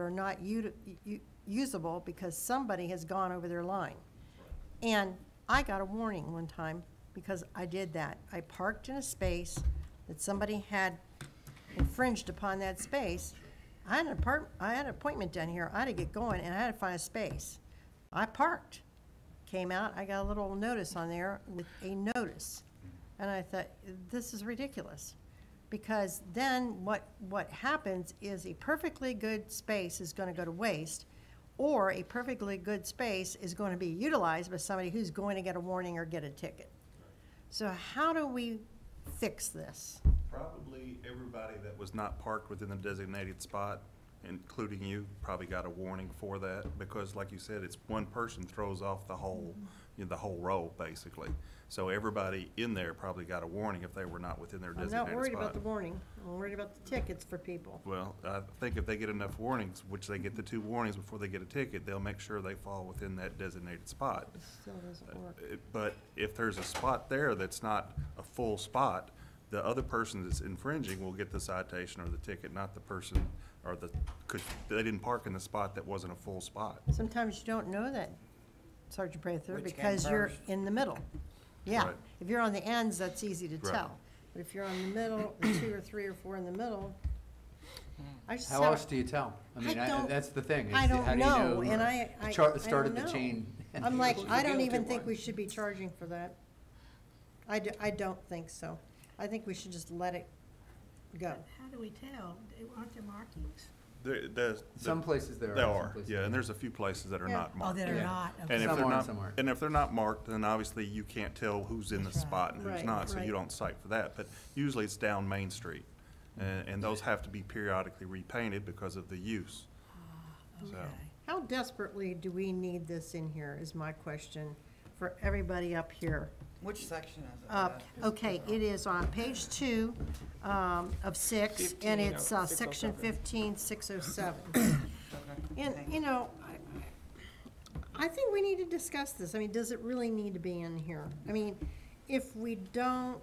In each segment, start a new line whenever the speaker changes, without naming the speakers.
are not u- u- usable because somebody has gone over their line. And I got a warning one time because I did that. I parked in a space that somebody had infringed upon that space. I had an apart, I had an appointment down here, I had to get going, and I had to find a space. I parked, came out, I got a little notice on there with a notice. And I thought, this is ridiculous. Because then what, what happens is a perfectly good space is gonna go to waste, or a perfectly good space is gonna be utilized by somebody who's going to get a warning or get a ticket. So how do we fix this?
Probably everybody that was not parked within the designated spot, including you, probably got a warning for that, because like you said, it's one person throws off the whole, you know, the whole row, basically. So everybody in there probably got a warning if they were not within their
I'm
designated spot.
not worried about the warning, I'm worried about the tickets for people.
Well, I think if they get enough warnings, which they get the two warnings before they get a ticket, they'll make sure they fall within that designated spot.
It still doesn't work.
It- But if there's a spot there that's not a full spot, the other person that's infringing will get the citation or the ticket, not the person, or the, because they didn't park in the spot that wasn't a full spot.
Sometimes you don't know that, Sergeant Prather,
Which came
because you're
first.
in the middle. Yeah,
Right.
if you're on the ends, that's easy to
Right.
tell. But if you're on the middle, the two or three or four in the middle, I just.
How
saw-
else do you tell? I mean,
I
I-
don't-
that's the thing. is
I don't
how do you uh,
know, and I-
the
I-
char-
I
the Start
don't
of the
know.
chain.
I'm like,
Well,
I
the
don't
guilty
even think we
ones.
should be charging for that. I, d- I don't think so. I think we should just let it go.
How do we tell? They- Aren't there markings?
There, there's.
Some places there are.
There
some
are,
places
yeah, and
there
there's a few places that are
Yeah.
not marked.
that
Yeah.
And if they're
Some are and
not,
some aren't.
and if they're not marked, then obviously you can't tell who's in the
That's right.
spot and who's
Right,
not, so
right.
you don't cite for that. But usually it's down Main Street, and, and those have to be periodically repainted because of the use.
Ah,
So,
How desperately do we need this in here is my question for everybody up here.
Which section is it?
Uh, Okay, it is on page two um, of six, and
15,
it's uh,
oh,
section
607.
fifteen, six oh seven.
Uh,
And, you know, I- I think we need to discuss this. I mean, does it really need to be in here? I mean, if we don't,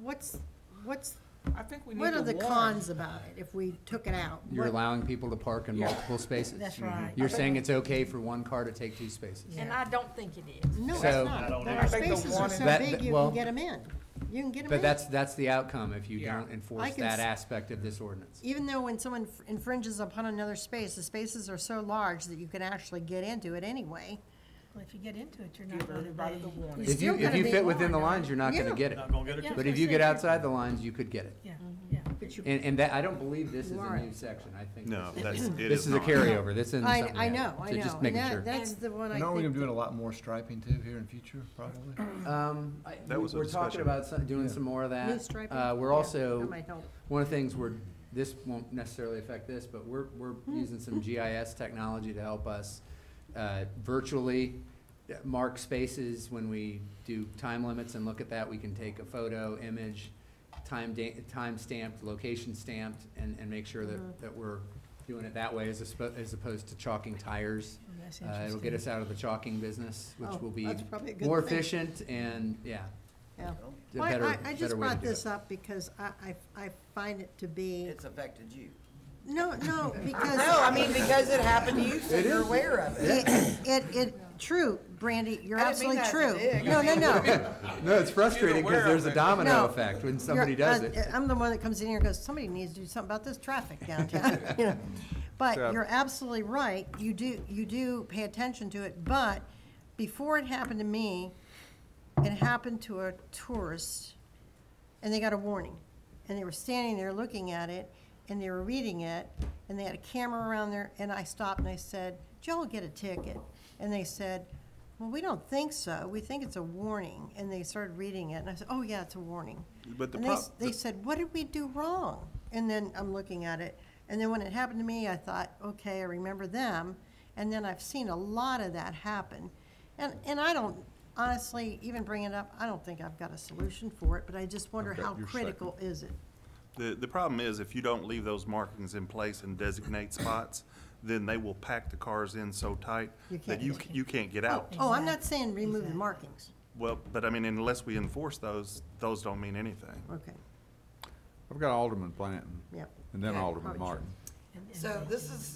what's, what's,
I think we need to
what are the
warn.
cons about it if we took it out?
You're
What-
allowing people to park in
Yeah.
multiple spaces. Mm-hmm.
That's right.
You're saying it's okay for one car to take two spaces.
And I don't think it is.
No, it's
So-
not. But
I
our
think the
spaces are
one in-
so
That-
big,
that-
you
well-
can get them in. You can get them in.
But that's, that's the outcome if you
Yeah.
don't enforce
can s-
that aspect of this ordinance.
even though when someone f- infringes upon another space, the spaces are so large that you can actually get into it anyway.
Well, if you get into it, you're not
Give
gonna
everybody
be.
the warning.
If you,
still
if
gotta
you
be
fit within the
warned,
lines, you're not gonna
Yeah.
get it.
Not gonna get a
Yeah.
But if you get outside the lines, you could get it.
Yeah, yeah.
But you,
And, and that, I don't believe this is a new
Warrant.
section, I think.
no,
this
that's,
is-
it is
This is a
not.
carryover, this isn't
I,
something.
I
new.
know, I
So
know.
Just
and
making
that-
sure.
That's the one I
And aren't we gonna be
think,
doing a lot more striping too here in future, probably?
Um, I-
That was a
we're talking
discussion.
about some- doing some more of that.
new striping.
Uh, we're
Yeah,
also,
That might help.
one of the things we're, this won't necessarily affect this, but we're, we're
Hmm.
using some GIS technology to help us uh, virtually mark spaces when we do time limits and look at that. We can take a photo, image, time da- time stamped, location stamped, and, and make sure
Hmm.
that, that we're doing it that way as opposed, as opposed to chalking tires.
Well, That's
Uh, it'll
interesting.
get us out of the chalking business,
Oh,
which will be
that's probably a good
more
thing.
efficient and, yeah,
Yeah.
a
Well, I-
better,
I, I just
better way to
brought
do
this
it.
up because I, I, I find it to be,
It's affected you.
no, no, because.
No, I mean, because it happened to you, so
It
you're
is.
aware of it.
It, it, it, true, Brandy, you're
I didn't mean
absolutely
that
true.
as big.
No, no, no.
No, it's frustrating
aware
because
of
there's a
it.
domino
No.
effect when somebody
You're-
does
I-
it.
I'm the one that comes in here and goes, somebody needs to do something about this traffic downtown, you know. But
So-
you're absolutely right, you do, you do pay attention to it, but before it happened to me, it happened to a tourist, and they got a warning. And they were standing there looking at it, and they were reading it, and they had a camera around there, and I stopped and I said, did y'all get a ticket? And they said, well, we don't think so, we think it's a warning, and they started reading it, and I said, oh, yeah, it's a warning.
But the
And they,
prob-
s- they said, what did we do wrong? And then I'm looking at it, and then when it happened to me, I thought, okay, I remember them, and then I've seen a lot of that happen. And, and I don't, honestly, even bring it up, I don't think I've got a solution for it, but I just wonder
Okay,
how
your
critical is it?
The, the problem is if you don't leave those markings in place and designate spots, then they will pack the cars in so tight
You
that
can't
you,
get
c- you can't get
Oh,
out.
oh, I'm not saying remove the markings,
Well, but I mean, unless we enforce those, those don't mean anything.
okay,
I've got Alderman Blanton
yep.
and then
Okay,
Alderman
probably should.
Martin.
And- and-
So this is